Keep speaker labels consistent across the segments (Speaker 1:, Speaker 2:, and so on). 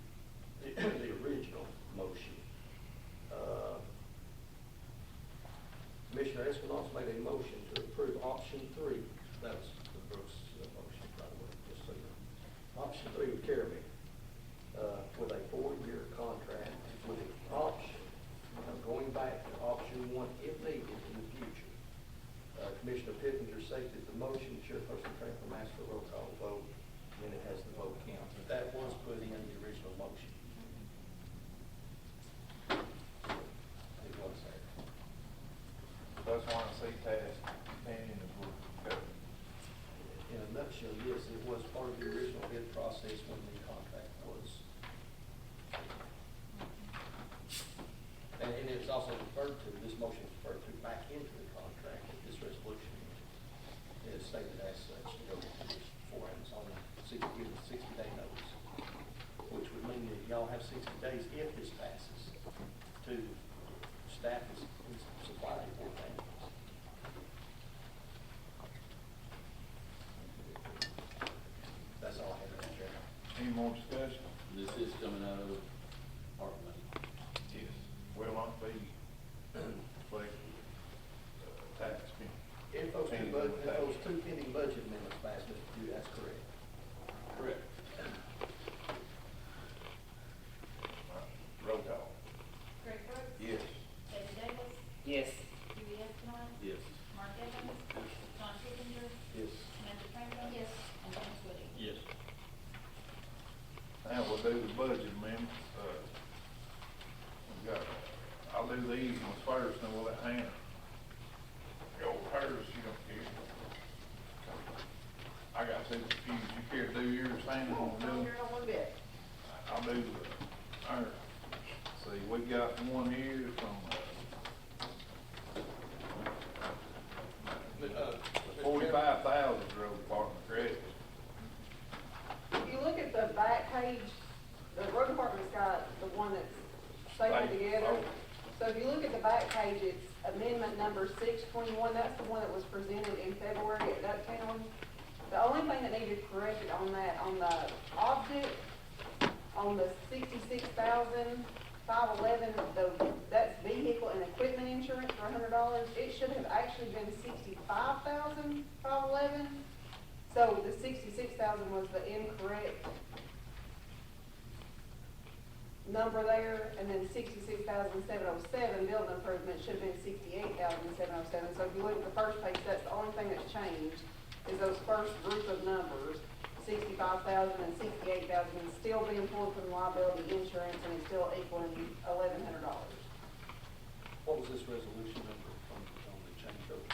Speaker 1: Uh, option three, that was the Brooks uh, motion, by the way, just so you know. Option three would carry me, uh, with a four-year contract with an option of going back to option one if needed in the future. Uh, Commissioner Pittenger seconded the motion, Chairperson Franklin asked for a roll call vote, and it has the vote count. But that was put in the original motion. It was there.
Speaker 2: That's why I say task companion is what we got.
Speaker 1: In a nutshell, yes, it was part of the original bid process when the contract was. And and it's also referred to, this motion is referred to back into the contract, but this resolution is stated as such to go with this four and it's only sixty, given sixty day notice. Which would mean that y'all have sixty days if this passes to staff and supply the board manuals. That's all I have, Mr. Chairman.
Speaker 2: Any more discussion?
Speaker 3: This is coming out of ARP money.
Speaker 2: Yes. Will not be reflected, uh, tax being.
Speaker 1: If those two, bud- if those two pending budget amendments pass, Mr. Pugh, that's correct.
Speaker 3: Correct.
Speaker 2: Roll call.
Speaker 4: Greg Brooks.
Speaker 2: Yes.
Speaker 4: David Davis.
Speaker 5: Yes.
Speaker 4: Dewey Estimon.
Speaker 3: Yes.
Speaker 4: Mark Evans. John Kipinger.
Speaker 2: Yes.
Speaker 4: Samantha Franklin. Yes. And James Woody.
Speaker 3: Yes.
Speaker 2: Now we'll do the budget amendments, uh, we got, I'll do these ones first, and we'll let Hannah go with hers, she don't care. I got so confused, you care to do yours, Hannah, or do?
Speaker 5: Don't care one bit.
Speaker 2: I'll do the, all right. See, we got one here from, uh, forty-five thousand road department credit.
Speaker 5: If you look at the back page, the road department's got the one that's stapled
Speaker 2: Right.
Speaker 5: together.
Speaker 2: Oh.
Speaker 5: So if you look at the back page, it's amendment number six twenty-one, that's the one that was presented in February at Ducktown. The only thing that needed corrected on that, on the object, on the sixty-six thousand five eleven, the, that's vehicle and equipment insurance for hundred dollars, it should have actually been sixty-five thousand five eleven. So the sixty-six thousand was the incorrect number there, and then sixty-six thousand seven oh seven, building improvement should have been sixty-eight thousand seven oh seven. So if you look at the first page, that's the only thing that's changed, is those first group of numbers, sixty-five thousand and sixty-eight thousand, is still being pulled from liability insurance, and it's still equaling eleven hundred dollars.
Speaker 1: What was this resolution number from, on the change order?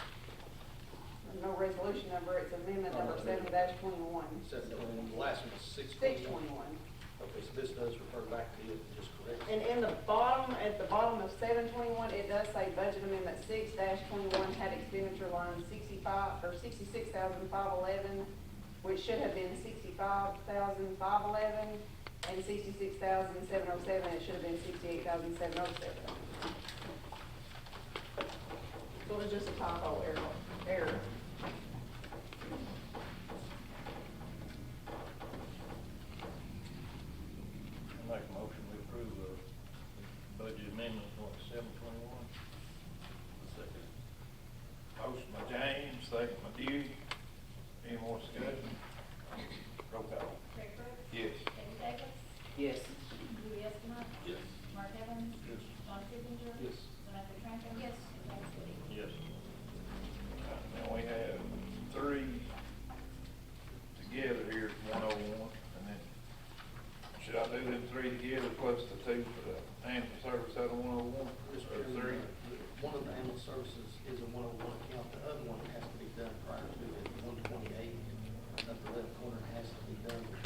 Speaker 5: No resolution number, it's amendment number seven dash twenty-one,
Speaker 1: Seven twenty-one, the last one was six
Speaker 5: six
Speaker 1: twenty-one.
Speaker 5: twenty-one.
Speaker 1: Okay, so this does refer back to it, just correct.
Speaker 5: And in the bottom, at the bottom of seven twenty-one, it does say budget amendment six twenty-one had expenditure line sixty-five, or sixty-six thousand five eleven, which should have been sixty-five thousand five eleven, and sixty-six thousand seven oh seven, it should have been sixty-eight thousand seven oh seven. So it was just a typo error, error.
Speaker 2: I Make a motion to approve the budget amendment, what, seven twenty-one? Second. Motion by James, second by Dewey. Any more discussion? Roll call.
Speaker 4: Greg Brooks.
Speaker 2: Yes.
Speaker 4: David Davis.
Speaker 5: Yes.
Speaker 4: Dewey Estimon.
Speaker 3: Yes.
Speaker 4: Mark Evans.
Speaker 2: Yes.
Speaker 4: John Kipinger.
Speaker 1: Yes.
Speaker 4: Samantha Franklin. Yes. And James Woody.
Speaker 2: Yes. Now we have three together here, one oh one, and then, should I do them three together plus the two for the ambulance service out of one oh one?
Speaker 1: Mr.
Speaker 2: Or three?
Speaker 1: Chairman, uh, one of the animal services is a one oh one account, the other one has to be done prior to it, one twenty-eight. Number eleven corner has to be done with
Speaker 2: uh,